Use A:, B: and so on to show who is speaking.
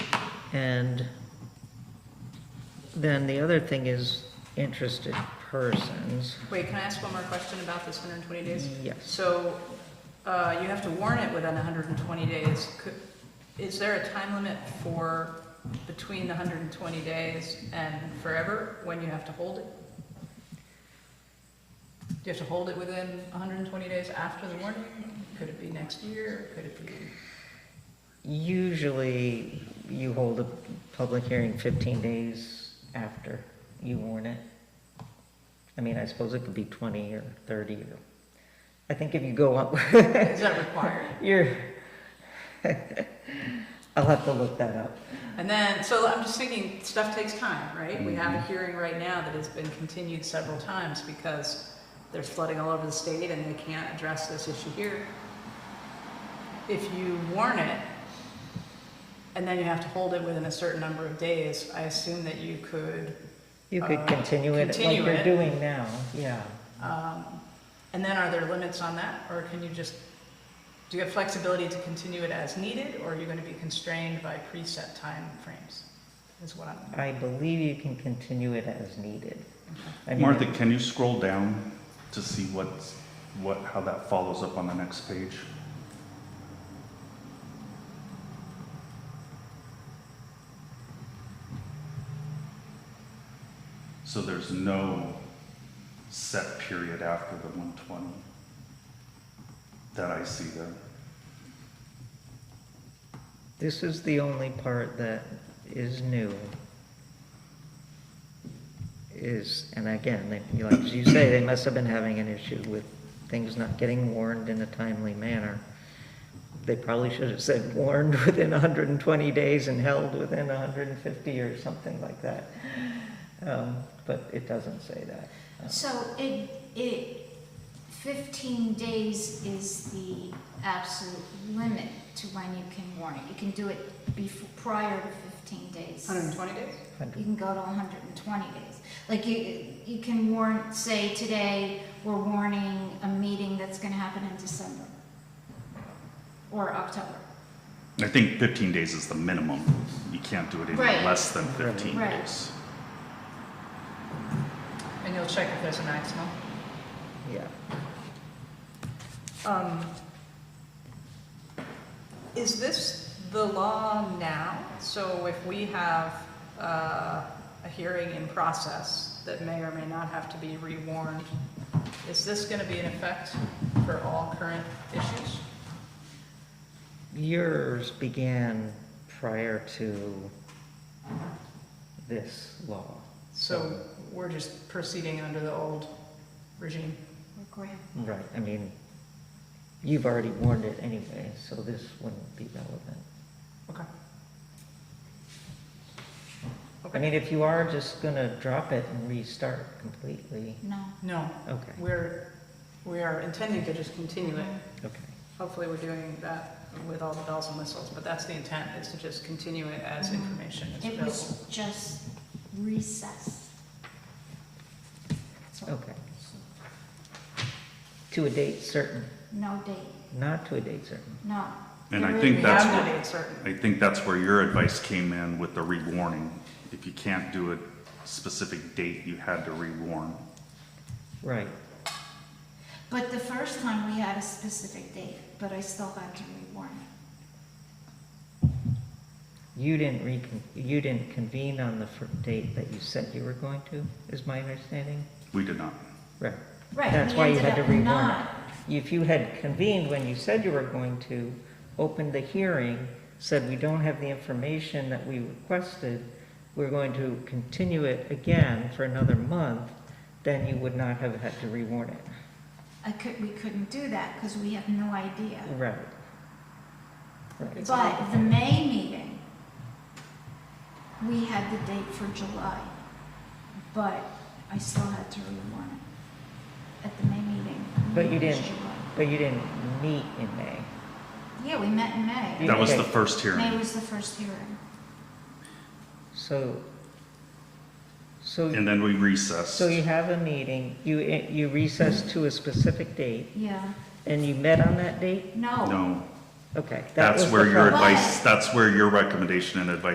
A: And then the other thing is interested persons.
B: Wait, can I ask one more question about this 120 days?
A: Yes.
B: So uh, you have to warn it within 120 days. Could- Is there a time limit for between the 120 days and forever when you have to hold it? Do you have to hold it within 120 days after the warning? Could it be next year? Could it be?
A: Usually, you hold a public hearing 15 days after you warn it. I mean, I suppose it could be 20 or 30 or, I think if you go up,
B: Is that required?
A: you're, I'll have to look that up.
B: And then, so I'm just thinking, stuff takes time, right? We have a hearing right now that has been continued several times because there's flooding all over the state and they can't address this issue here. If you warn it, and then you have to hold it within a certain number of days, I assume that you could,
A: You could
B: Uh,
A: continue it like
B: continue
A: you're
B: it.
A: doing now, yeah.
B: um, and then are there limits on that? Or can you just, do you have flexibility to continue it as needed, or are you gonna be constrained by preset timeframes? Is what I'm,
A: I believe you can continue it as needed. I mean,
C: Martha, can you scroll down to see what's, what, how that follows up on the next page? So there's no set period after the one twenty that I see there.
A: This is the only part that is new. Is, and again, they, you like you say, they must have been having an issue with things not getting warned in a timely manner. They probably should have said warned within hundred and twenty days and held within hundred and fifty or something like that. Um, but it doesn't say that.
D: So it, it, fifteen days is the absolute limit to when you can warn it. You can do it before, prior to fifteen days.
B: 120 days?
D: You
A: 100.
D: can go to hundred and twenty days. Like you, you can warn, say today, we're warning a meeting that's gonna happen in December or October.
C: I think fifteen days is the minimum. You can't do it any
D: Right.
C: less than fifteen
D: Right.
C: days.
B: and you'll check if there's a maximum?
A: Yeah.
B: Um, Is this the law now? So if we have uh, a hearing in process that may or may not have to be rewarned, is this going to be in effect for all current issues?
A: Yours began prior to this law.
B: So we're just proceeding under the old regime?
D: Or grant.
A: Right, I mean, you've already warned it anyway, so this wouldn't be relevant.
B: Okay.
A: I mean, if you are just gonna drop it and restart completely,
D: No.
B: No,
A: okay,
B: we're, we are intending to just continue it.
A: okay.
B: Hopefully, we're doing that with all the bells and whistles, but that's the intent, is to just continue it as information is
D: Mm-hmm. It
B: available.
D: was just recess. That's all.
A: Okay. To a date certain,
D: No date,
A: not to a date certain.
D: no.
C: And I
D: There
C: think
D: is-
B: We
C: that's
B: have
C: what-
B: no date certain.
C: I think that's where your advice came in with the rewarning. If you can't do a specific date, you had to rewarn.
A: Right,
D: But the first time we had a specific date, but I still had to rewarn it.
A: you didn't recon, you didn't convene on the fir- date that you said you were going to, is my understanding?
C: We did not.
A: Right.
D: Right,
A: That's
D: we
A: why you
D: ended
A: had to
D: up
A: rewarn it.
D: not-
A: If you had convened when you said you were going to, opened the hearing, said we don't have the information that we requested, we're going to continue it again for another month, then you would not have had to rewarn it.
D: I could, we couldn't do that because we have no idea.
A: Right. Right.
B: It's
D: But
B: all-
D: the May meeting, we had the date for July, but I still had to rewarn it at the May meeting.
A: But you
D: It was
A: didn't.
D: July.
A: But you didn't meet in May.
D: Yeah, we met in May.
C: That was the
A: Okay.
C: first
D: May
C: hearing.
D: was the first hearing.
A: So, so,
C: And then we recessed.
A: so you have a meeting, you, you recess to a specific date,
D: Yeah,
A: and you met on that date?
D: no.
C: No,
A: Okay. that
C: that's
A: was
C: where
A: the
C: your
A: problem.
C: advice, that's where your recommendation and advice